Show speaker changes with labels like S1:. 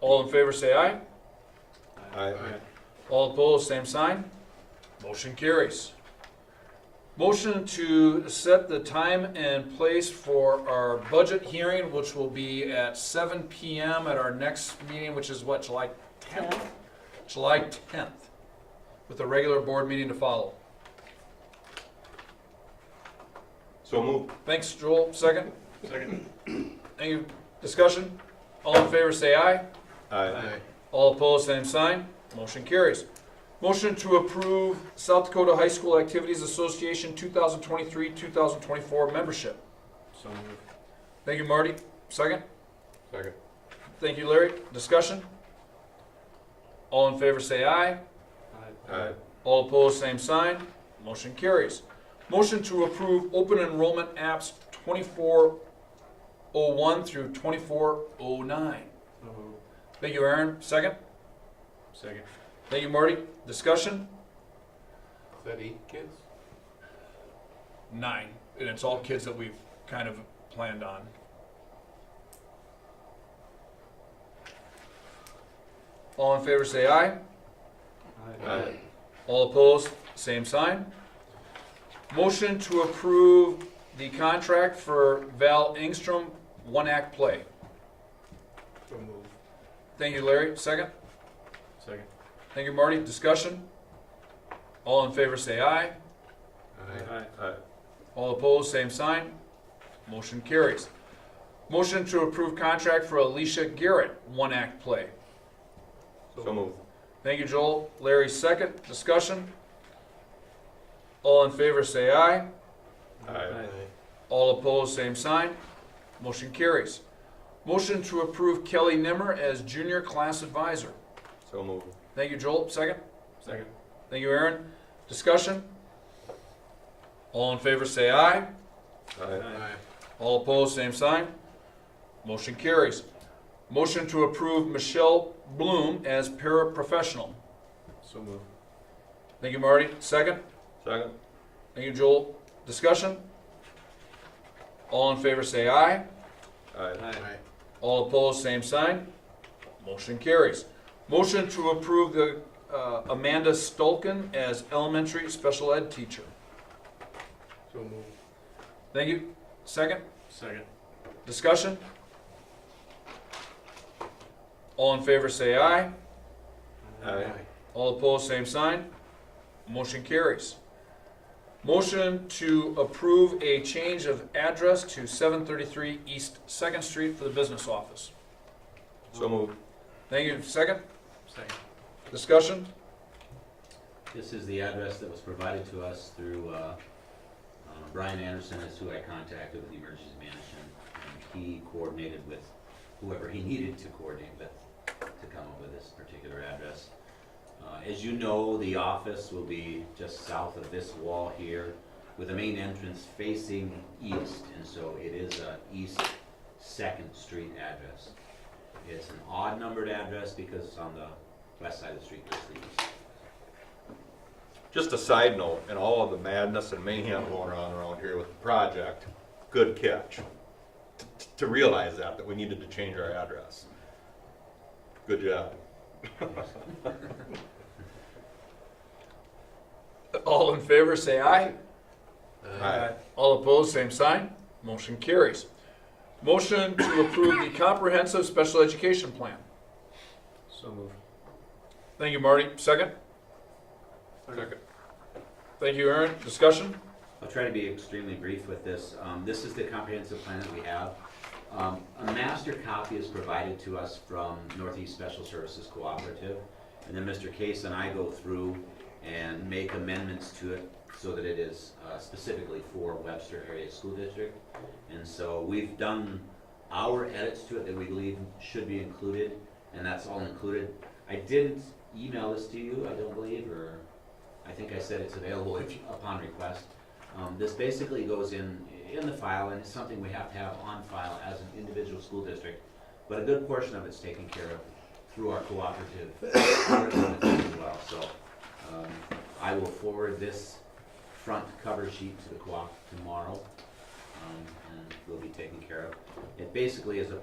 S1: All in favor, say aye.
S2: Aye.
S1: All opposed, same sign. Motion carries. Motion to set the time and place for our budget hearing, which will be at seven PM at our next meeting, which is what, July tenth? July tenth, with a regular board meeting to follow.
S2: So move.
S1: Thanks, Joel. Second?
S2: Second.
S1: Any discussion? All in favor, say aye.
S2: Aye.
S1: All opposed, same sign. Motion carries. Motion to approve South Dakota High School Activities Association 2023-2024 membership.
S2: So move.
S1: Thank you, Marty. Second.
S2: Second.
S1: Thank you, Larry. Discussion? All in favor, say aye.
S2: Aye.
S1: All opposed, same sign. Motion carries. Motion to approve open enrollment apps 2401 through 2409. Thank you, Aaron. Second.
S2: Second.
S1: Thank you, Marty. Discussion?
S2: Is that eight kids?
S1: Nine. And it's all kids that we've kind of planned on. All in favor, say aye.
S2: Aye.
S1: All opposed, same sign. Motion to approve the contract for Val Engstrom, one act play.
S2: So move.
S1: Thank you, Larry. Second.
S2: Second.
S1: Thank you, Marty. Discussion? All in favor, say aye.
S2: Aye. Aye.
S1: All opposed, same sign. Motion carries. Motion to approve contract for Alicia Garrett, one act play.
S2: So move.
S1: Thank you, Joel. Larry, second. Discussion? All in favor, say aye.
S2: Aye.
S1: All opposed, same sign. Motion carries. Motion to approve Kelly Nimmer as junior class advisor.
S2: So move.
S1: Thank you, Joel. Second.
S2: Second.
S1: Thank you, Aaron. Discussion? All in favor, say aye.
S2: Aye.
S1: All opposed, same sign. Motion carries. Motion to approve Michelle Bloom as paraprofessional.
S2: So move.
S1: Thank you, Marty. Second.
S2: Second.
S1: Thank you, Joel. Discussion? All in favor, say aye.
S2: Aye.
S3: Aye.
S1: All opposed, same sign. Motion carries. Motion to approve the uh, Amanda Stolken as elementary special ed teacher.
S3: So move.
S1: Thank you. Second,
S3: Second.
S1: discussion? All in favor, say aye.
S2: Aye.
S1: All opposed, same sign. Motion carries. Motion to approve a change of address to 733 East Second Street for the business office.
S2: So move.
S1: Thank you. Second,
S3: Second.
S1: discussion?
S4: This is the address that was provided to us through, uh, uh, Brian Anderson is who I contacted with the emergency management. and He coordinated with whoever he needed to coordinate with to come up with this particular address. Uh, As you know, the office will be just south of this wall here with the main entrance facing east. And so it is a East Second Street address. It's an odd numbered address because it's on the west side of the street, it's the east.
S2: Just a side note, and all of the madness and mayhem going on around here with the project, good catch. T- t- To realize that, that we needed to change our address. Good job.
S1: All in favor, say aye.
S2: Aye.
S1: All opposed, same sign. Motion carries. Motion to approve the comprehensive special education plan.
S3: So move.
S1: Thank you, Marty. Second?
S3: Second.
S1: Thank you, Aaron. Discussion?
S4: I'll try to be extremely brief with this. Um, This is the comprehensive plan that we have. Um, A master copy is provided to us from Northeast Special Services Cooperative, and then Mr. Case and I go through and make amendments to it so that it is uh, specifically for Webster Area School District. And so we've done our edits to it that we believe should be included, and that's all included. I didn't email this to you, I don't believe, or I think I said it's available if- upon request. Um, this basically goes in, in the file, and it's something we have to have on file as an individual school district, but a good portion of it's taken care of through our cooperative arrangements as well, so, um, I will forward this front cover sheet to the co-op tomorrow, um, and will be taken care of. It basically is a